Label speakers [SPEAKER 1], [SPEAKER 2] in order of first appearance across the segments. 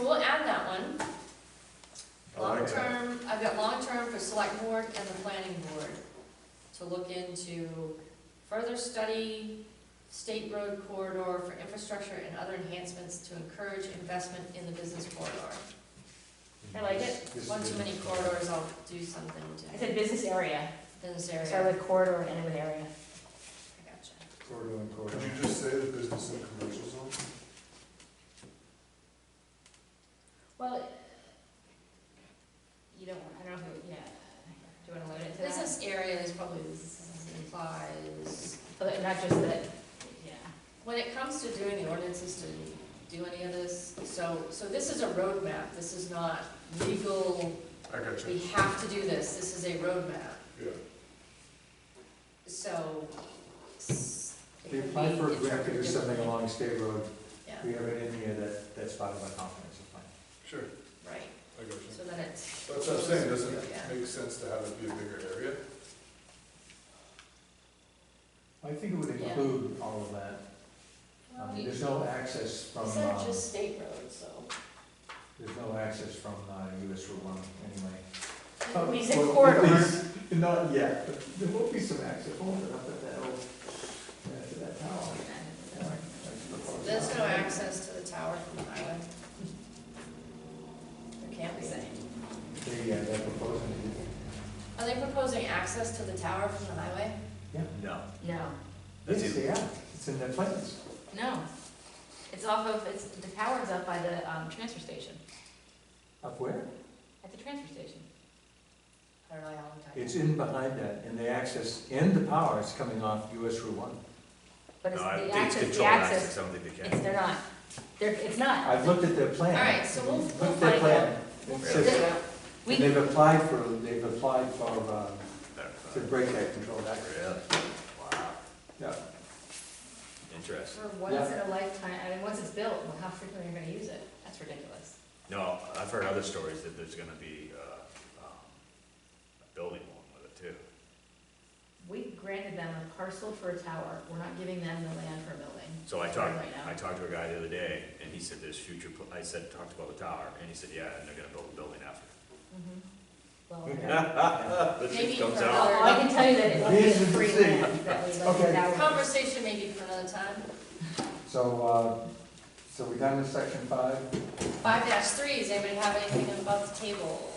[SPEAKER 1] we'll add that one.
[SPEAKER 2] I like that.
[SPEAKER 1] Long-term, I've got long-term for select board and the planning board to look into further study, state road corridor for infrastructure and other enhancements to encourage investment in the business corridor. I like it.
[SPEAKER 2] This is
[SPEAKER 1] One too
[SPEAKER 2] good.
[SPEAKER 1] many corridors, I'll do something
[SPEAKER 3] I
[SPEAKER 1] to
[SPEAKER 3] said business area,
[SPEAKER 1] this
[SPEAKER 3] I
[SPEAKER 1] area.
[SPEAKER 3] started with corridor and ended with area.
[SPEAKER 1] I gotcha.
[SPEAKER 2] Corridor and corridor. Could you just say the business and commercial zone?
[SPEAKER 3] Well, you don't, want- I don't know who, yeah, do you wanna limit it to that?
[SPEAKER 1] Business area is probably, this implies,
[SPEAKER 3] Oh, But Not just that, yeah,
[SPEAKER 1] when it comes to doing the ordinances, to do any of this, so, so this is a roadmap, this is not legal
[SPEAKER 2] I got
[SPEAKER 1] we
[SPEAKER 2] you,
[SPEAKER 1] have to do this, this is a roadmap,
[SPEAKER 2] yeah.
[SPEAKER 1] so. s- it
[SPEAKER 4] They
[SPEAKER 1] can
[SPEAKER 4] apply
[SPEAKER 1] be
[SPEAKER 4] for a grant to do
[SPEAKER 1] interpreted
[SPEAKER 4] something
[SPEAKER 1] differently.
[SPEAKER 4] along State Road,
[SPEAKER 1] Yeah,
[SPEAKER 4] we have it in here that, that's part of our comprehensive plan.
[SPEAKER 2] Sure,
[SPEAKER 1] right,
[SPEAKER 2] I got you.
[SPEAKER 1] so then it's.
[SPEAKER 2] That's what I'm saying, doesn't it
[SPEAKER 1] Yeah.
[SPEAKER 2] make sense to have it be a bigger area?
[SPEAKER 4] I think it would
[SPEAKER 1] Yeah.
[SPEAKER 4] include all of that, I mean, there's no access from,
[SPEAKER 1] These
[SPEAKER 4] uh,
[SPEAKER 1] are just state roads, so.
[SPEAKER 4] there's no access from, uh, US Route one anyway.
[SPEAKER 3] we said
[SPEAKER 4] Well, at
[SPEAKER 3] corridor,
[SPEAKER 4] least- Not yet, but there will be some access, hold it up at that old, uh, to that tower. Yeah, that's the part.
[SPEAKER 1] There's no access to the tower from the highway. There can't be any.
[SPEAKER 4] They, uh, they're proposing to do.
[SPEAKER 1] Are they proposing access to the tower from the highway?
[SPEAKER 5] No.
[SPEAKER 3] no,
[SPEAKER 5] They
[SPEAKER 4] Yes,
[SPEAKER 5] do.
[SPEAKER 4] they are, it's in their plans.
[SPEAKER 3] no. It's off of, it's, the tower's up by the, um, transfer station,
[SPEAKER 4] Up where?
[SPEAKER 3] at the transfer station.
[SPEAKER 1] I don't know how long time.
[SPEAKER 4] It's in behind that, and the access and the power is coming off US Route one.
[SPEAKER 3] But it's
[SPEAKER 5] No, I
[SPEAKER 3] the
[SPEAKER 5] think it's
[SPEAKER 3] access, the
[SPEAKER 5] controlled access,
[SPEAKER 3] access,
[SPEAKER 5] I don't think they
[SPEAKER 3] it's,
[SPEAKER 5] can.
[SPEAKER 3] they're not, they're, it's not.
[SPEAKER 4] I've looked at their plan.
[SPEAKER 1] All right, so we'll-
[SPEAKER 4] Looked
[SPEAKER 1] we'll
[SPEAKER 4] at their
[SPEAKER 3] find
[SPEAKER 4] plan. It
[SPEAKER 5] Really?
[SPEAKER 4] says-
[SPEAKER 3] We,
[SPEAKER 4] And they've applied for, they've applied for, uh, to
[SPEAKER 5] Really?
[SPEAKER 4] break that controlled access.
[SPEAKER 5] Wow,
[SPEAKER 4] Yeah,
[SPEAKER 5] interesting.
[SPEAKER 3] for once in a lifetime, I mean, once it's built, well, how frequently are you gonna use it? That's ridiculous.
[SPEAKER 5] No, I've heard other stories that there's gonna be, uh, um, a building along with it too.
[SPEAKER 3] We granted them a parcel for a tower, we're not giving them the land for a building.
[SPEAKER 5] So I talked,
[SPEAKER 3] Right now.
[SPEAKER 5] I talked to a guy the other day, and he said there's future, pl- I said, talked about the tower, and he said, yeah, and they're gonna build a building after.
[SPEAKER 3] Mhm. Well,
[SPEAKER 4] Yeah.
[SPEAKER 5] The shit
[SPEAKER 1] Maybe
[SPEAKER 5] comes
[SPEAKER 1] for
[SPEAKER 5] out.
[SPEAKER 3] Well, I can tell you that it would
[SPEAKER 4] This
[SPEAKER 3] be
[SPEAKER 4] is the
[SPEAKER 3] free
[SPEAKER 4] thing.
[SPEAKER 3] land that we let
[SPEAKER 4] Okay.
[SPEAKER 3] the tower.
[SPEAKER 1] Conversation maybe for another time.
[SPEAKER 4] So, uh, so we done with section five?
[SPEAKER 1] Five dash three, does anybody have anything above the table?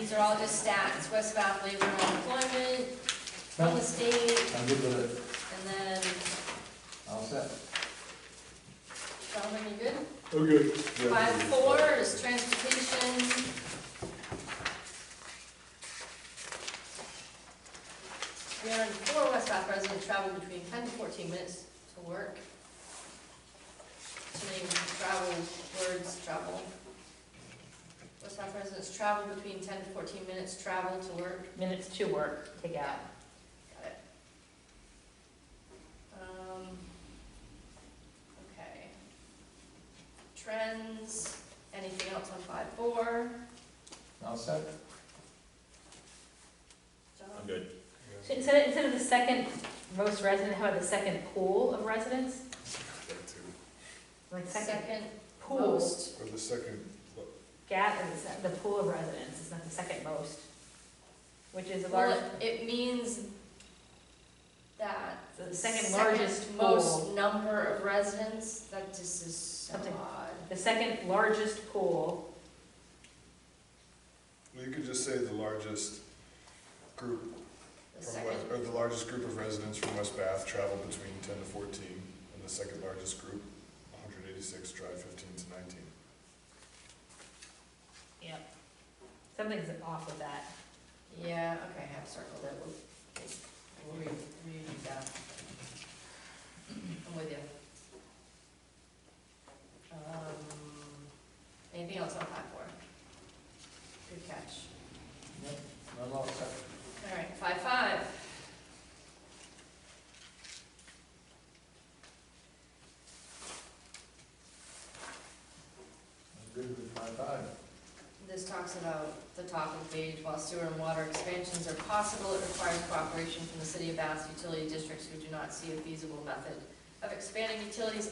[SPEAKER 1] These are all just stats, West Bath labor and employment, from the
[SPEAKER 4] No,
[SPEAKER 1] state,
[SPEAKER 4] I'm good with it,
[SPEAKER 1] and then,
[SPEAKER 4] all set.
[SPEAKER 1] Sheldon, you good?
[SPEAKER 2] Oh, good.
[SPEAKER 1] Five four is transportation. We are in four West Bath residents travel between ten to fourteen minutes to work. Too many travel words, travel. West Bath residents travel between ten to fourteen minutes travel to work.
[SPEAKER 3] Minutes to work, take out.
[SPEAKER 1] Got it. Um, okay. Trends, anything else on five four?
[SPEAKER 4] All set?
[SPEAKER 5] I'm good.
[SPEAKER 3] So Instead, of- instead of the second most resident, how about the second pool of residents? Like second
[SPEAKER 1] Second
[SPEAKER 3] pool,
[SPEAKER 1] most,
[SPEAKER 2] Or the second, look,
[SPEAKER 3] gap, is the- the pool of residents, it's not the second most, which is a large,
[SPEAKER 1] well, it- it means that.
[SPEAKER 3] the second largest pool.
[SPEAKER 1] Most number of residents, that just is so
[SPEAKER 3] Something.
[SPEAKER 1] odd.
[SPEAKER 3] The second largest pool,
[SPEAKER 2] well, you could just say the largest group
[SPEAKER 1] The
[SPEAKER 2] from West,
[SPEAKER 1] second,
[SPEAKER 2] or the largest group of residents from West Bath travel between ten to fourteen, and the second largest group, one hundred eighty-six, drive fifteen to nineteen.
[SPEAKER 3] yep, something's off with that.
[SPEAKER 1] yeah, okay, I have circled it, we'll, we'll re- redo that. I'm with you. Um, anything else on five four? Good catch.
[SPEAKER 4] Yep, I'm all set.
[SPEAKER 1] All right, five five.
[SPEAKER 4] I'm good with five five.
[SPEAKER 1] This talks about the top of page, while sewer and water expansions are possible, it requires cooperation from the city of Bath's utility districts who do not see a feasible method of expanding utilities